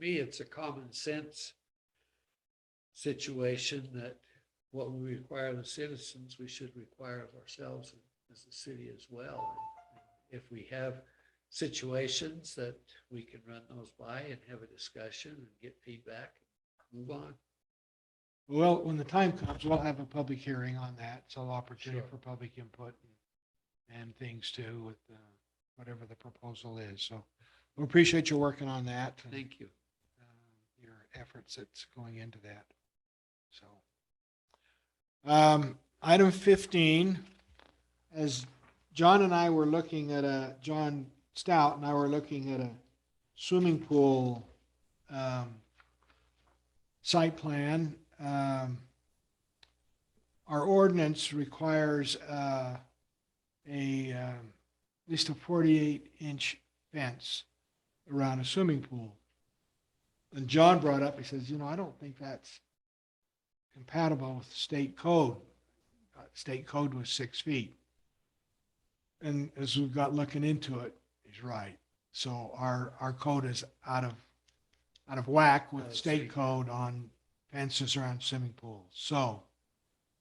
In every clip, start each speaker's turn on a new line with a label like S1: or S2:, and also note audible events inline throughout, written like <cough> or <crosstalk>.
S1: me, it's a common sense situation that what we require of the citizens, we should require of ourselves as a city as well. If we have situations that we can run those by and have a discussion and get feedback, move on.
S2: Well, when the time comes, we'll have a public hearing on that. So opportunity
S1: Sure.
S2: for public input and things too with uh, whatever the proposal is. So we appreciate you working on that and
S1: Thank you.
S2: uh, your efforts that's going into that. So. Um, Item 15, as John and I were looking at a, John Stout and I were looking at a swimming pool um, site plan. um, Our ordinance requires uh, a, um, at least a 48-inch fence around a swimming pool. And John brought up, he says, you know, I don't think that's compatible with state code. Uh, State code was six feet. And as we've got looking into it, he's right. So our, our code is out of, out of whack
S1: Out
S2: with
S1: of
S2: state
S1: sync.
S2: code on fences around swimming pools. So,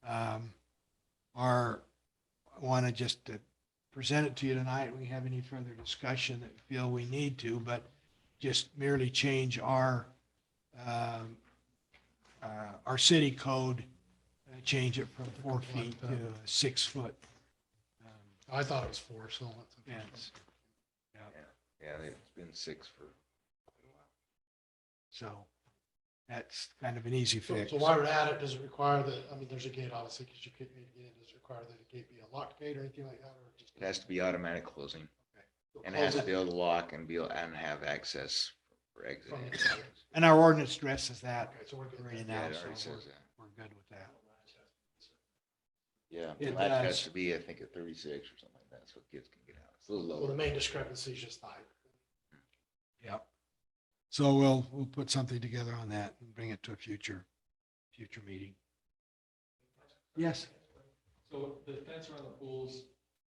S2: um, our, I want to just uh, present it to you tonight. We have any further discussion that we feel we need to, but just merely change our, um, uh, our city code, uh, change it from four feet to a six foot. um,
S3: I thought it was four, so. let's-
S2: fence.
S4: Yeah, it's been six for.
S2: So that's kind of an easy
S3: So
S2: fix.
S3: so why would add it? Does it require that, I mean, there's a gate obviously because you can't get in. Does it require that a gate be a locked gate or anything like that? or just-
S4: It has to be automatic closing
S3: You'll
S4: and it has
S3: close
S4: to be able to lock and be, able and have access for exit.
S3: from
S4: and
S3: the-
S4: entry.
S2: And our ordinance addresses that
S3: Okay, so we're good.
S2: right
S4: Yeah,
S2: now,
S4: it
S2: so
S4: already
S2: we're,
S4: says that.
S2: we're good with that.
S4: Yeah,
S2: It
S4: latch
S3: uh,
S2: does.
S4: has to be, I think, at thirty-six or something like that, so kids can get out. It's a little
S3: Well, the
S4: low.
S3: main discrepancy is just the height.
S2: Yep. So we'll, we'll put something together on that and bring it to a future, future meeting. Yes.
S5: So the fence around the pools,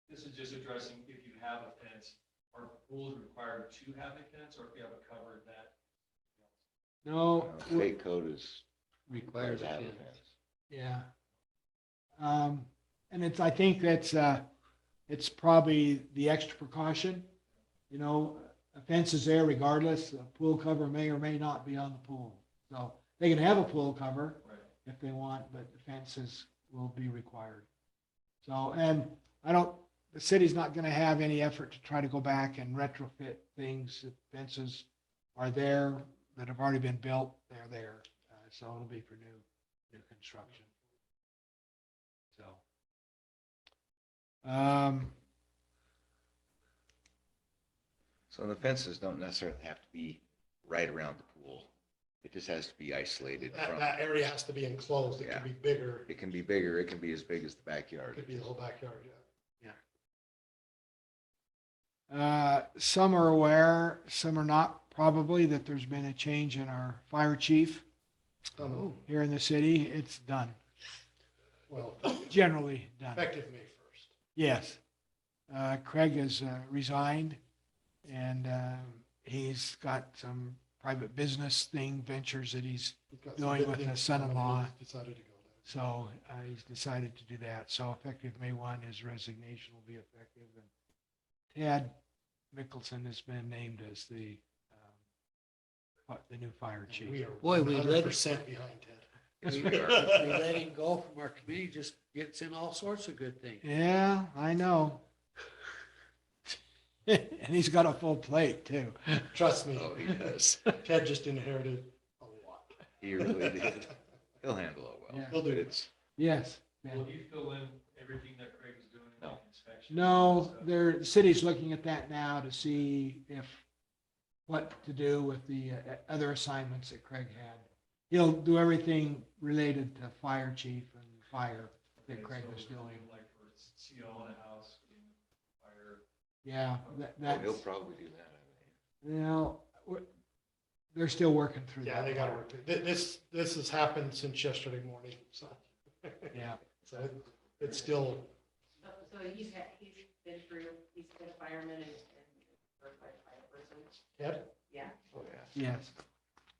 S5: this is just addressing if you have a fence, are pools required to have a fence or if you have a cover that?
S2: No.
S4: Uh, State code is.
S1: Requires a
S4: to have
S1: fence.
S4: fence.
S2: Yeah. Um, and it's, I think that's, uh, it's probably the extra precaution. You know, a fence is there regardless. A pool cover may or may not be on the pool. So they can have a pool cover
S5: Right.
S2: if they want, but the fences will be required. So, and I don't, the city's not gonna have any effort to try to go back and retrofit things. The Fences are there that have already been built, they're there. Uh, So it'll be for new, new construction. So. Um,
S4: So the fences don't necessarily have to be right around the pool. It just has to be isolated
S3: That,
S4: from,
S3: that area has to be enclosed. It
S4: Yeah.
S3: could be bigger.
S4: it can be bigger, it can be as big as the
S3: It
S4: backyard.
S3: could be the whole backyard, yeah.
S2: Uh, Some are aware, some are not, probably, that there's been a change in our fire chief
S1: Oh.
S3: Um,
S2: here in the city. It's done,
S3: Well,
S2: generally done.
S3: effective May first.
S2: Yes. Uh, Craig has uh, resigned, and uh, he's got some private business thing, ventures that he's,
S3: We've got some
S2: Going
S3: good
S2: with
S3: things
S2: the son-in-law.
S3: coming. He's Decided to go there.
S2: so uh, he's decided to do that. So effective May 1, his resignation will be effective. And Tad Mickelson has been named as the, um, what, the new fire chief. <laughs>
S3: We are
S1: Boy, we let-
S3: 100% behind Ted.
S1: We we let him go from our committee, just gets in all sorts of good things.
S2: Yeah, I know. <laughs> and he's got a full plate too.
S3: Trust me,
S4: Oh, he does.
S3: Ted just inherited a lot.
S4: He really did. He'll handle it well.
S2: Yeah.
S3: He'll do
S4: But
S3: it.
S4: it's,
S2: Yes. Ben.
S5: Will you fill in everything that Craig is doing in the
S4: No.
S5: inspection?
S2: No, there, the city's looking at that now to see if, what to do with the uh, other assignments that Craig had. He'll do everything related to fire chief and fire that Craig was doing.
S5: Like for CO in a house, you know, fire.
S2: Yeah, that,
S4: oh, he'll
S2: that's,
S4: probably do that, I think.
S2: you know, we're- they're still working through that.
S3: Yeah, they gotta
S2: part.
S3: work. it. Thi- This, this has happened since yesterday morning, so.
S2: Yeah,
S3: So it- it's still,
S6: So so he's had, he's been through, he's been a fireman and, and certified fire person,
S3: Ted,
S6: yeah.
S4: Oh, yeah.
S2: yes.